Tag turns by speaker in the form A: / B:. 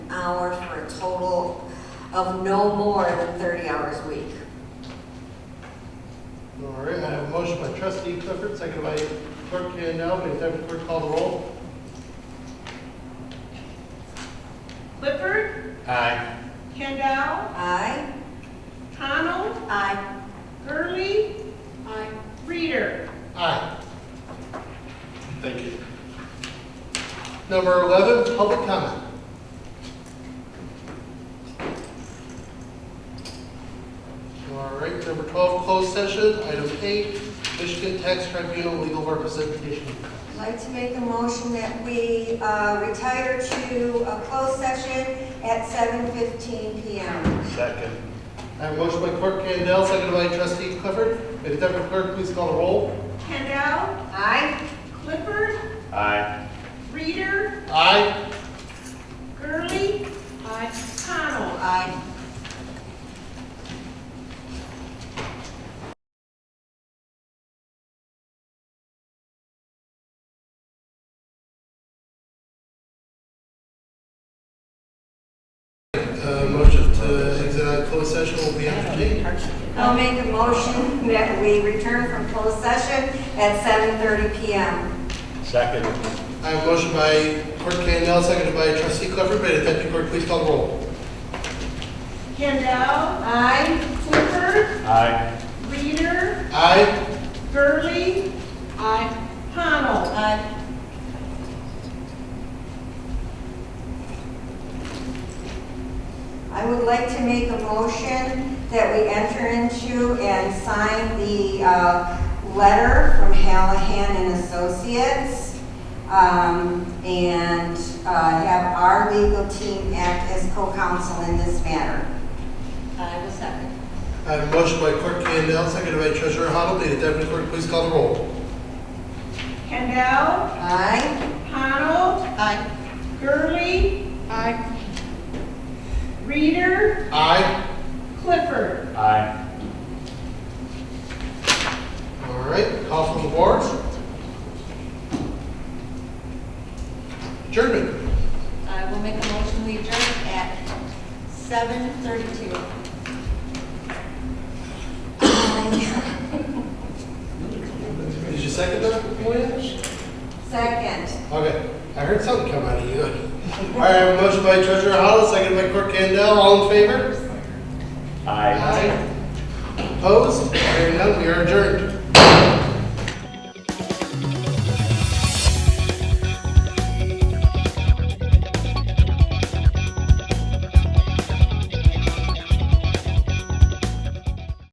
A: hour for a total of no more than 30 hours a week.
B: All right, I have a motion by trustee Clifford, second by clerk Kandel. May the deputy clerk call the roll?
C: Clifford,
B: Aye.
C: Kendall,
A: Aye?
C: Connell,
A: Aye.
C: Gurley. uh, Aye. Reader.
B: Aye. Thank you. Number 11, public comment. All right, number 12, closed session. Item 8, Michigan Tax Tribunal Legal Representation.
A: I'd like to make a motion that we uh, retire to a closed session at 7:15 PM.
B: Second. I have a motion by clerk Kandel, second by trustee Clifford. May the deputy clerk please call the roll?
C: Kendall,
A: Aye?
C: Clifford. Aye. Reader,
B: Aye.
C: Gurley. Aye. Connell.
A: Aye.
B: Uh, Motion to exit out of closed session will be entertained.
A: I'll make a motion that we return from closed session at 7:30 PM.
D: Second.
B: I have a motion by Clerk Kandel, seconded by Trustee Clifford. May the deputy clerk please call the roll.
C: Kendall, uh,
A: Aye?
C: Clifford,
D: Aye.
C: Reader,
B: Aye.
C: Gurley. Aye. Connell.
A: Aye. I would like to make a motion that we enter into and sign the uh, letter from Hallahan and Associates, um, and uh, have our legal team act as co-counsel in this matter. I will second.
B: I have a motion by Clerk Kandel, seconded by Treasurer Hoddle. May the deputy clerk please call the roll.
C: Kendall,
A: Aye?
C: Connell,
A: Aye.
C: Gurley. uh, Aye. Reader,
B: Aye.
C: Clifford.
D: Aye.
B: All right, call from the boards. Adjournment.
A: I will make a motion we adjourn at 7:32.
B: Did you second that, Moynihan?
A: Second.
B: Okay, I heard something come out of you. All right, I have a motion by Treasurer Hoddle, seconded by Clerk Kandel. All in favor?
D: Aye.
B: Aye. Opposed? Hearing none, we are adjourned.